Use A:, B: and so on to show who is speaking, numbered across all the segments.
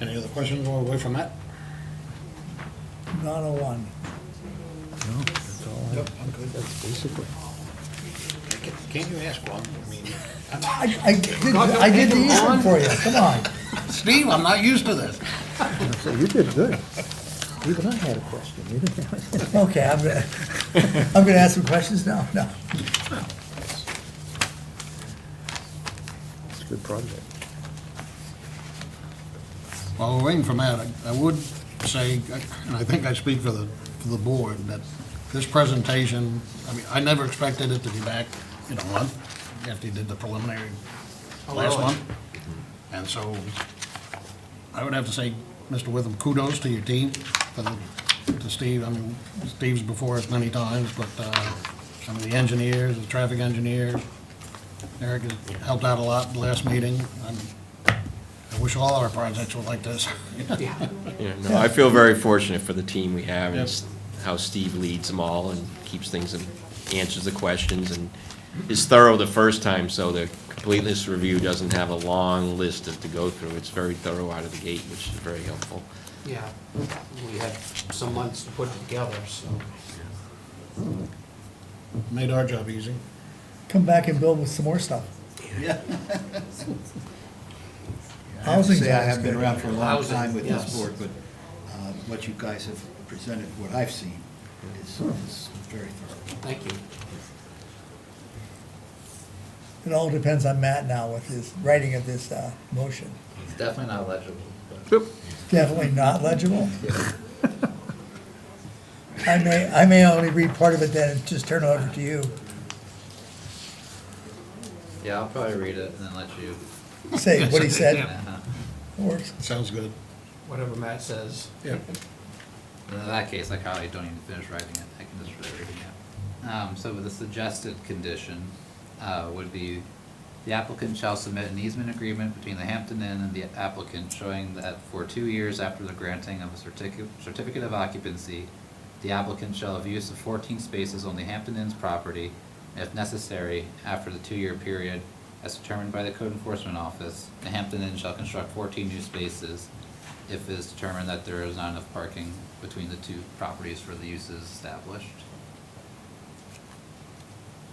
A: Any other questions while we're away from that?
B: Not a oh one.
A: Yep, I'm good. That's basically. Can't you ask one? I mean,
B: I, I did, I did the easy one for you, come on.
A: Steve, I'm not used to this.
C: So you did good. Even I had a question. You didn't have it.
B: Okay, I'm gonna, I'm gonna ask some questions now, no.
C: It's a good project.
A: While we're waiting for Matt, I- I would say, and I think I speak for the, for the board, that this presentation, I mean, I never expected it to be back in a month after you did the preliminary last month. And so I would have to say, Mr. Witham, kudos to your team, for the- to Steve, I mean, Steve's before us many times, but uh, some of the engineers, the traffic engineers, Eric has helped out a lot in the last meeting. I'm- I wish all our projects were like this.
D: Yeah, no, I feel very fortunate for the team we have and s- how Steve leads them all and keeps things and answers the questions and is thorough the first time, so the completeness review doesn't have a long list to- to go through. It's very thorough out of the gate, which is very helpful.
E: Yeah, we had some months to put it together, so.
A: Made our job easy.
B: Come back and build with some more stuff.
A: Yeah.
F: I have to
B: Housing's
F: say, I
B: always
F: have been
B: good.
F: around for a long
E: Housing,
F: time with
E: yes.
F: this board, but uh, what you guys have presented, what I've seen, is
A: Hmm.
F: is very thorough.
E: Thank you.
B: It all depends on Matt now with his writing of this, uh, motion.
G: It's definitely not legible, but
B: Definitely not legible. I may, I may only read part of it then and just turn it over to you.
G: yeah, I'll probably read it and then let you.
B: Say what he said.
G: Uh-huh.
B: Works.
A: Sounds good.
E: Whatever Matt says.
A: Yeah.
G: In that case, I probably don't even finish writing it, I can just read it out. Um, so the suggested condition, uh, would be the applicant shall submit an easement agreement between the Hampton Inn and the applicant showing that for two years after the granting of a certificate, certificate of occupancy, the applicant shall have use of fourteen spaces on the Hampton Inn's property, and if necessary, after the two-year period, as determined by the code enforcement office, the Hampton Inn shall construct fourteen new spaces if it is determined that there is not enough parking between the two properties for the uses established.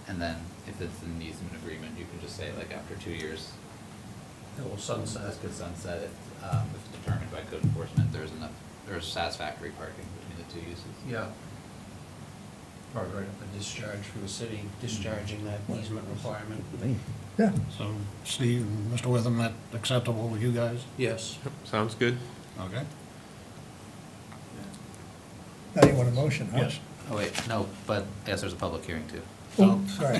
G: And then if it's an easement agreement, you can just say like after two years. It will sunset. This could sunset if, um, if determined by code enforcement, there's enough, there's satisfactory parking between the two uses.
E: Yeah. Or right up a discharge from the city, discharging that easement requirement.
B: Yeah,
A: So Steve and Mr. Witham, that acceptable with you guys?
E: Yes.
D: Sounds good.
A: Okay.
B: now you want a motion, huh?
A: Yes.
G: Oh wait, no, but, yes, there's a public hearing too.
B: Oh, sorry.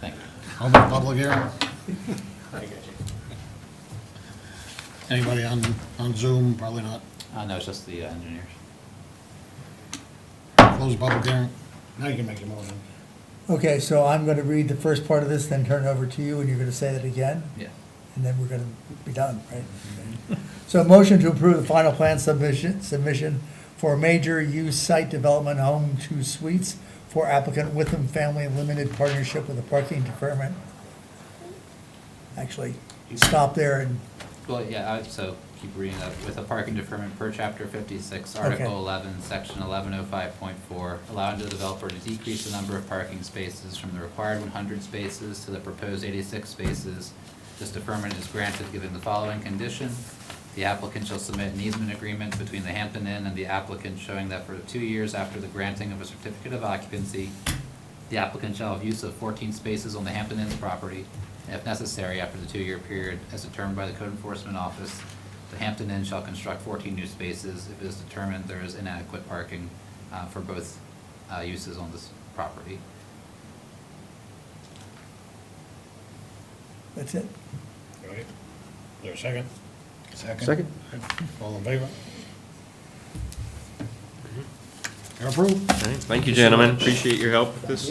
G: Thank you.
A: Open the public hearing. Anybody on, on Zoom? Probably not.
G: Uh, no, it's just the uh, engineers.
A: Close the public hearing. Now you can make your motion.
B: Okay, so I'm gonna read the first part of this, then turn it over to you, and you're gonna say that again?
G: Yeah.
B: and then we're gonna be done, right? So a motion to approve the final plan submission, submission for major use site development home two suites for applicant Witham Family Limited Partnership with a parking deferment. Actually, stop there and,
G: Well, yeah, I, so keep reading that, with a parking deferment per chapter fifty-six,
B: Okay.
G: article eleven, section eleven oh five point four, allowing the developer to decrease the number of parking spaces from the required one hundred spaces to the proposed eighty-six spaces. This deferment is granted given the following condition. The applicant shall submit an easement agreement between the Hampton Inn and the applicant showing that for two years after the granting of a certificate of occupancy, the applicant shall have use of fourteen spaces on the Hampton Inn's property, and if necessary, after the two-year period as determined by the code enforcement office, the Hampton Inn shall construct fourteen new spaces if it is determined there is inadequate parking uh, for both uh, uses on this property.
B: that's it.
A: Right. There a second?
C: Second?
A: All in favor? You're approved.
D: All right, Thank you, gentlemen. Appreciate your help with this.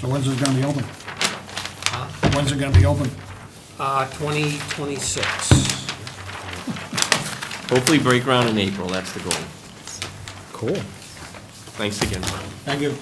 A: So when's it gonna be open? When's it gonna be open?
E: Uh, twenty twenty-six.
D: Hopefully break ground in April, that's the goal.
C: Cool.
D: Thanks again, Brian.
A: Thank you.